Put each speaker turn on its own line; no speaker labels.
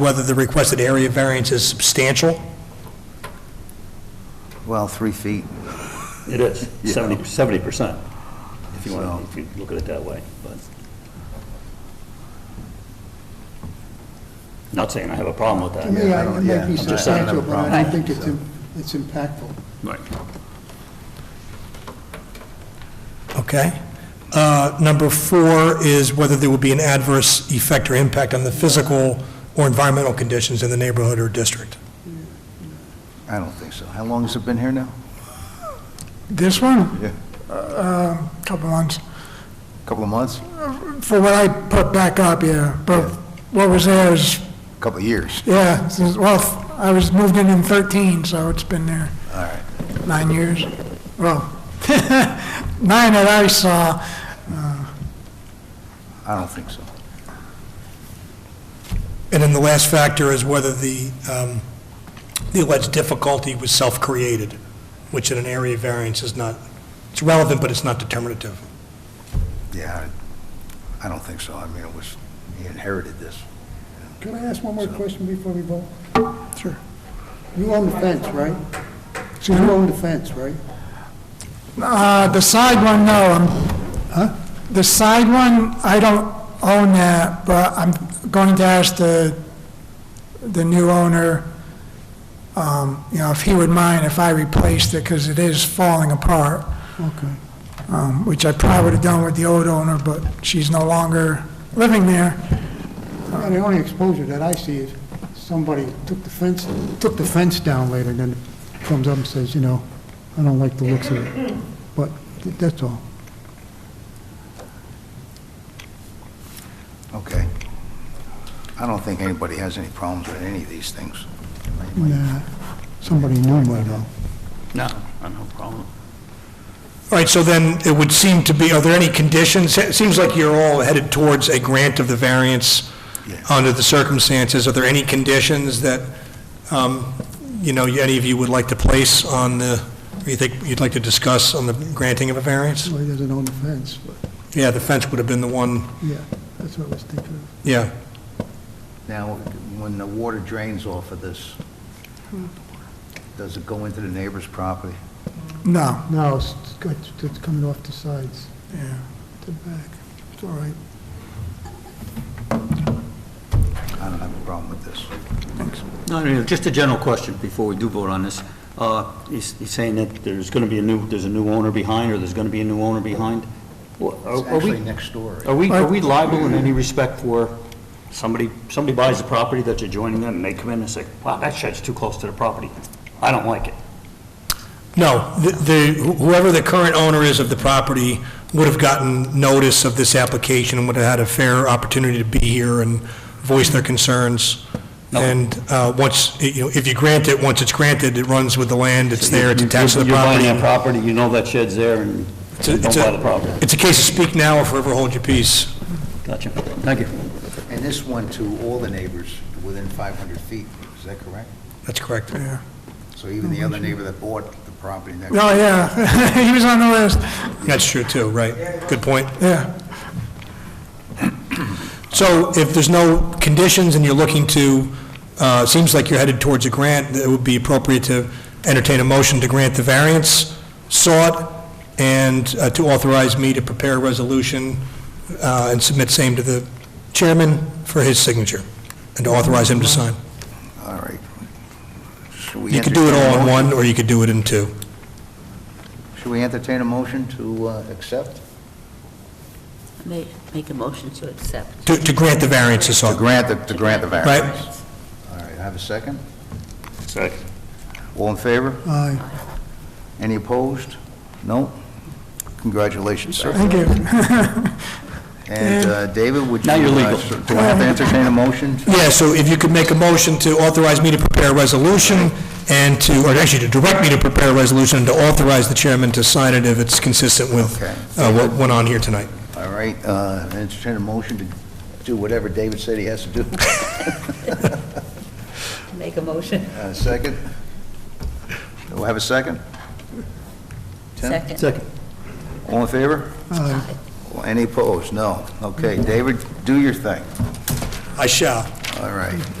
whether the requested area variance is substantial?
Well, three feet,
It is,
Yeah.
70, 70%, if you
So-
want, if you look at it that way, but. Not saying I have a problem with
To me,
that.
I- uh,
don't-
it
yeah,
might
I'm
be
just saying I have a
substantial, but I
problem.
don't think it's, im- it's impactful.
Right.
Okay. Uh, Number four is whether there would be an adverse effect or impact on the physical or environmental conditions in the neighborhood or district.
I don't think so. How long has it been here now?
This one, Uh,
Yeah.
couple months,
Couple of months?
for what I put back up, yeah, but what was there is,
Couple of years?
yeah, this is- well, I was moved in in 13, so it's been there
All right.
nine years. Well, nine that I saw,
I don't think so.
And then the last factor is whether the, um, the alleged difficulty was self-created, which in an area variance is not, it's relevant, but it's not determinative.
Yeah, I I don't think so. I mean, it was, he inherited this.
Can I ask one more question before we vote?
Sure.
You own the fence, right? You own the fence, right?
Uh, the side one, no, I'm, the side one, I don't own that, but I'm going to ask the, the new owner, um, you know, if he would mind if I replaced it, because it is falling apart,
Okay.
um, which I probably would have done with the old owner, but she's no longer living there.
Yeah, The only exposure that I see is somebody took the fence, took the fence down later, then comes up and says, you know, I don't like the looks of it. But th- that's all.
Okay. I don't think anybody has any problems with any of these things.
Nah, Somebody knew might have.
No, I have no problem.
All right, so then it would seem to be, are there any conditions? It seems like you're all headed towards a grant of the variance
Yeah.
under the circumstances. Are there any conditions that, um, you know, any of you would like to place on the, or you think you'd like to discuss on the granting of a variance?
Well, he doesn't own the fence, but,
Yeah, the fence would have been the one,
yeah, that's what I was thinking of.
yeah.
Now, when the water drains off of this, does it go into the neighbor's property?
No,
No, it's, it's- it's coming off the sides,
yeah.
the back. It's all right.
I don't have a problem with this.
No, no, no, just a general question before we do vote on this. Uh, He's he's saying that there's going to be a new, there's a new owner behind, or there's going to be a new owner behind? Well,
It's
are- are we-
actually next door.
Are we, are we liable in any respect for somebody, somebody buys the property that's adjoining them, and they come in and say, wow, that shed's too close to the property, I don't like it?
No, the- the, whoever the current owner is of the property would have gotten notice of this application and would have had a fair opportunity to be here and voice their concerns.
No.
And uh, once, you know, if you grant it, once it's granted, it runs with the land, it's there, it's attached to the
You're buying
property.
that property, you know that shed's there, and
It's a-
don't
it's
buy
a-
the property.
It's a case of speak now or forever hold your peace.
Gotcha, thank you.
And this one to all the neighbors within 500 feet, is that correct?
That's correct.
So even the other neighbor that bought the property next
Oh, yeah, he was on the list,
That's true, too, right. Good point.
yeah.
So if there's no conditions and you're looking to, uh, seems like you're headed towards a grant, it would be appropriate to entertain a motion to grant the variance sought and uh, to authorize me to prepare a resolution uh, and submit same to the chairman for his signature and to authorize him to sign.
All right. Should we
You could do it
entertain a
all in
motion?
one, or you could do it in two.
Should we entertain a motion to uh, accept?
Ma- Make a motion to accept.
To to grant the variance is
To
sought.
grant the, to grant the
Right.
variance? All right, have a second?
Second.
All in favor?
Aye.
Any opposed? No? Congratulations, sir.
Thank you.
And uh, David, would you...
Now you're
uh,
legal.
so- Do I have to entertain a motion?
Yeah, so if you could make a motion to authorize me to prepare a resolution and to, or actually to direct me to prepare a resolution and to authorize the chairman to sign it if it's consistent with
Okay.
uh, what went on here tonight.
All right, uh, entertain a motion to do whatever David said he has to do.
Make a motion.
Uh, Second? Do I have a second? Tim?
Second.
Second.
All in favor? Well, Any opposed? No. Okay, David, do your thing.
I shall.
All right.